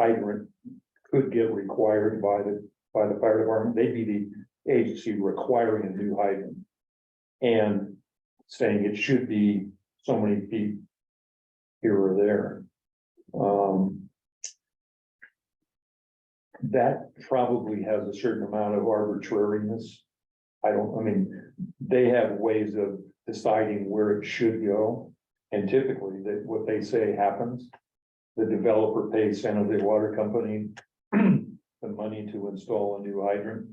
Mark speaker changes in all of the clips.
Speaker 1: hydrant could get required by the, by the fire department, they'd be the agency requiring a new hydrant. And saying it should be so many feet here or there. Um. That probably has a certain amount of arbitrariness. I don't, I mean, they have ways of deciding where it should go. And typically, that what they say happens. The developer pays San Jose Water Company the money to install a new hydrant.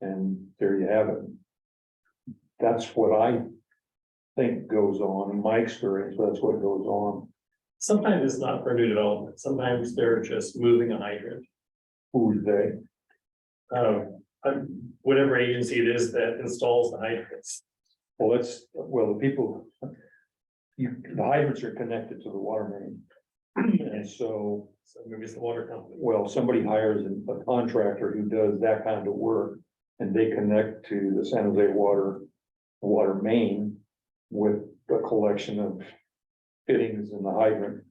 Speaker 1: And there you have it. That's what I think goes on, in my experience, that's what goes on.
Speaker 2: Sometimes it's not for new development, sometimes they're just moving a hydrant.
Speaker 1: Who's they?
Speaker 2: Um, um, whatever agency it is that installs the hydrants.
Speaker 1: Well, it's, well, the people. You, the hydrants are connected to the water main, and so,
Speaker 2: So maybe it's the water company.
Speaker 1: well, somebody hires a a contractor who does that kind of work. And they connect to the San Jose Water, water main with a collection of fittings in the hydrant.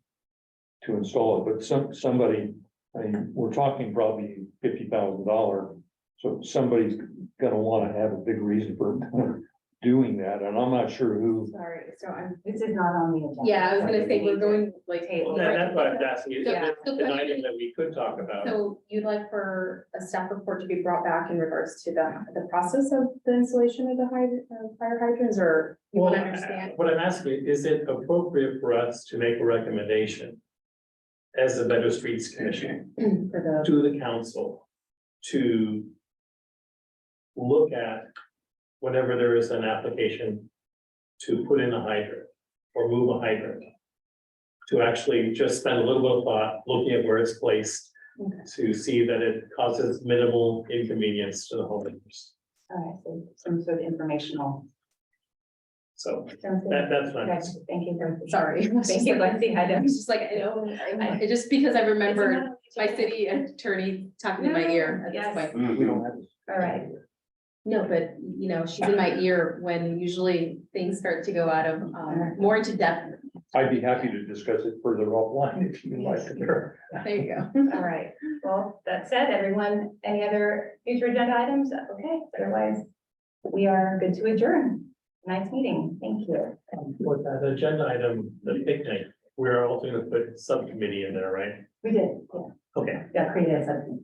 Speaker 1: To install it, but some, somebody, I mean, we're talking probably fifty thousand dollar. So somebody's gonna wanna have a big reason for doing that, and I'm not sure who.
Speaker 3: Sorry, so I'm, this is not on the agenda.
Speaker 4: Yeah, I was gonna say, we're going like.
Speaker 2: Well, that- that's what I was asking, is
Speaker 4: Yeah.
Speaker 2: it an item that we could talk about?
Speaker 4: So you'd like for a staff report to be brought back in regards to the, the process of the installation of the hyd- uh, fire hydrants or you
Speaker 2: Well,
Speaker 4: want to
Speaker 2: I-
Speaker 4: understand?
Speaker 2: what I'm asking, is it appropriate for us to make a recommendation? As the Better Streets Commission,
Speaker 4: For
Speaker 2: to the council, to. Look at whenever there is an application to put in a hydrant or move a hydrant. To actually just spend a little bit of thought, looking at where it's placed,
Speaker 4: Okay.
Speaker 2: to see that it causes minimal inconvenience to the homeowners.
Speaker 3: All right, so some sort of informational.
Speaker 2: So
Speaker 4: the.
Speaker 2: that, that's my.
Speaker 3: Okay, Thank you. very much.
Speaker 4: Sorry, I was just like, I was just like, I know, I, it just because I remembered my city attorney talking in my ear at
Speaker 3: Yes.
Speaker 4: this point.
Speaker 1: We don't have.
Speaker 3: All right,
Speaker 4: No, but you know, she's in my ear when usually things start to go out of, um, more into depth.
Speaker 1: I'd be happy to discuss it further offline if you'd like.
Speaker 2: Sure.
Speaker 4: There you go.
Speaker 3: all right. Well, that said, everyone, any other future agenda items? Okay, otherwise, we are good to adjourn. Nice meeting. Thank you.
Speaker 2: With that agenda item, the picnic, we're also gonna put subcommittee in there, right?
Speaker 3: We did, yeah,
Speaker 2: Okay,
Speaker 3: got created something.